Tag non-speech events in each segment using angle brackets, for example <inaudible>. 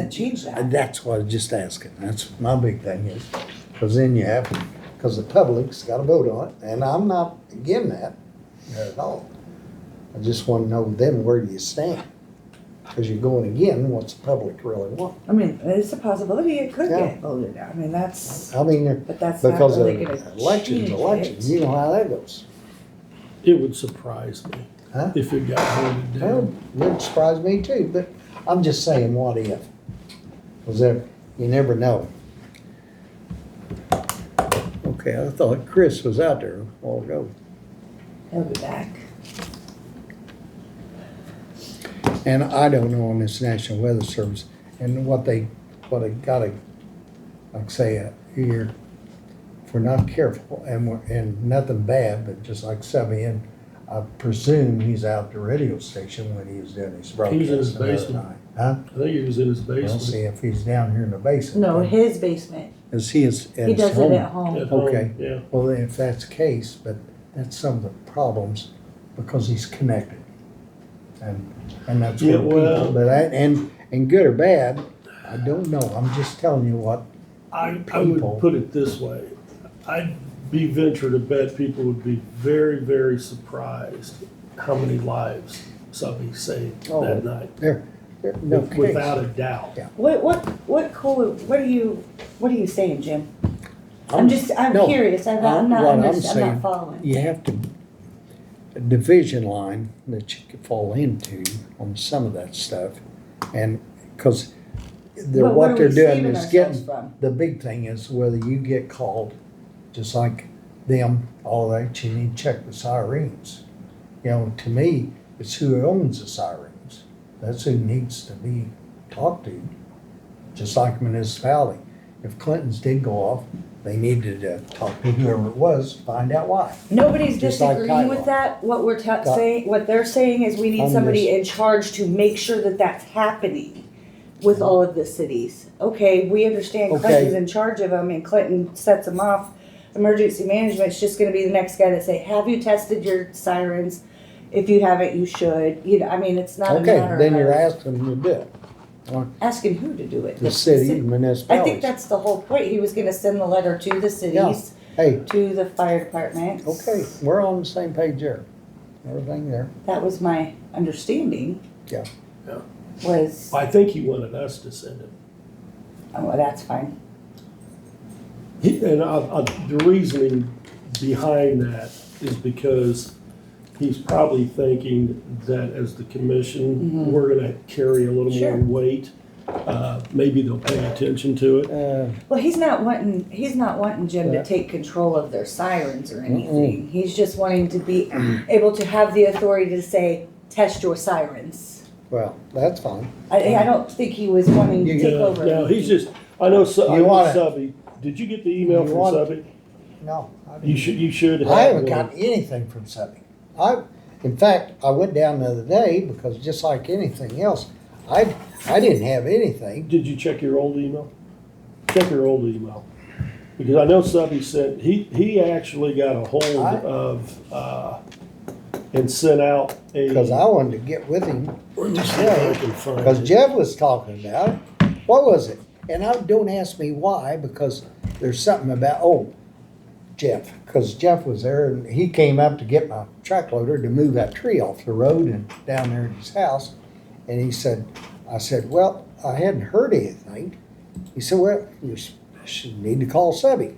can't change And that. that's what I'm just asking, that's my big thing is, cause then you have, cause the public's gotta vote on it, and I'm not again that at all. I just wanna know then where do you stand? Cause you're going again, what's the public really want? I mean, it's a possibility it could Yeah. get voted down. I mean, that's, I mean, they're- but that's not because of really gonna change elections, it. elections, you know how that goes. It would surprise me Huh? if it got voted Well, down. wouldn't surprise me too, but I'm just saying, what if? Cause there, you never know. Okay, I thought Chris was out there a while ago. He'll be back. And I don't know on this National Weather Service and what they, what they gotta, like say, uh, here, if we're not careful and we're, and nothing bad, but just like Sabian, I presume he's out at the radio station when he was doing his broadcast. He's in his the other basement. night. Huh? I think it was in his We'll basement. see if he's down here in the basement. No, his basement. Is he is at He his does it at home? home. At home, Okay. Yeah, Well, then if that's the case, but that's some of the problems because he's connected. And, and that's Yeah, what people, well- but I, and, and good or bad, I don't know. I'm just telling you what, I, I would People. put it this way. I'd be venture to bet people would be very, very surprised how many lives somebody saved Oh, that night. there, there- no case. Without a doubt. Yeah. What, what, what cool, what are you, what are you saying, Jim? I'm I'm- just, I'm no, curious. I'm not, I'm- I'm not, what I'm underst- I'm saying- not following. You have to, a division line that you could fall into on some of that stuff. And, cause they're, But what what are they're we doing saving is ourselves getting from? the big thing is whether you get called, just like them, all that, you need to check the sirens. You know, to me, it's who owns the sirens. That's who needs to be talked to, just like municipality. If Clinton's did go off, they needed to talk to whoever it was, find out why. Nobody's Just like disagreeing with Kylo. that. What we're ta- Ky- saying, what they're saying is we need I'm somebody in charge to make sure that that's happening with all of the cities. Okay, we understand Okay. Clinton's in charge of them and Clinton sets them off. Emergency management's just gonna be the next guy to say, have you tested your sirens? If you haven't, you should. You know, I mean, it's not a Okay, matter then you're of asking them to do it, asking who to do it. the city, the I think municipalities. that's the whole point. He was gonna send the letter to the cities, Hey, to the fire departments. okay, we're on the same page there, everything there. That was my understanding. Yeah. Yeah. Was, I think he wanted us to send it. oh, well, that's fine. He- And I, I, the reasoning behind that is because he's probably thinking that as the commission, we're gonna carry a little Mm-hmm. Sure. more weight. Uh, maybe they'll pay attention to it. Uh, Well, he's not wanting, he's not wanting Jim Yeah. to take control of their sirens or anything. He's just wanting to be able to have the authority to say, test your sirens. Well, that's fine. I, I don't think he was wanting to You take Yeah, over. No, he's just, I know, Su- I You know want it. Subby, did you get the email You from want it. Subby? No. I You didn't. should, you should have. I haven't one. gotten anything from Sunny. I, in fact, I went down the other day because just like anything else, I, I didn't have anything. Did you check your old email? Check your old email. Because I know Subby sent, he, he actually got a hold I- of, uh, and sent out a. Because I wanted to get with him, Let me see if I can because find it. Jeff was talking about it. What was it? And I, don't ask me why, because there's something about, oh, Jeff, because Jeff was there and he came up to get my track loader to move that tree off the road and down there at his house. And he said, I said, well, I hadn't heard anything. He said, well, you s- should need to call Subby.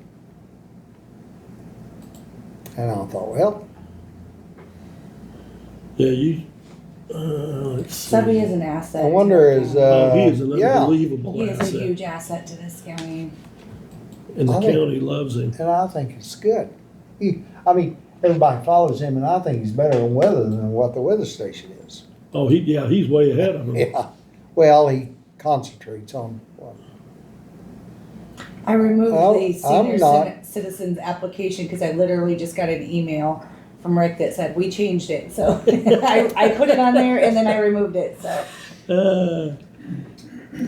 And I thought, well, Yeah, you, uh, let's see. Subby is an asset. I to wonder our is, county. Oh, he is uh, an yeah. unbelievable He is a asset, huge asset to this county. and the I think- county loves him. And I think it's good. He, I mean, everybody follows him and I think he's better on weather than what the weather station is. Oh, he, yeah, he's way ahead of him. Yeah. Well, he concentrates on what I removed Well, the senior Oh, I'm not. citi- citizens application because I literally just got an email from Rick that said, we changed it, so <laughs> I, I put it on there and then I removed it, so. Uh,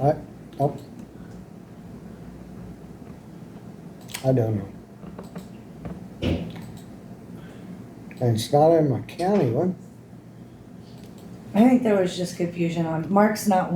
I, oh. I don't know. And it's not in my county one. I think there was just confusion on, Mark's not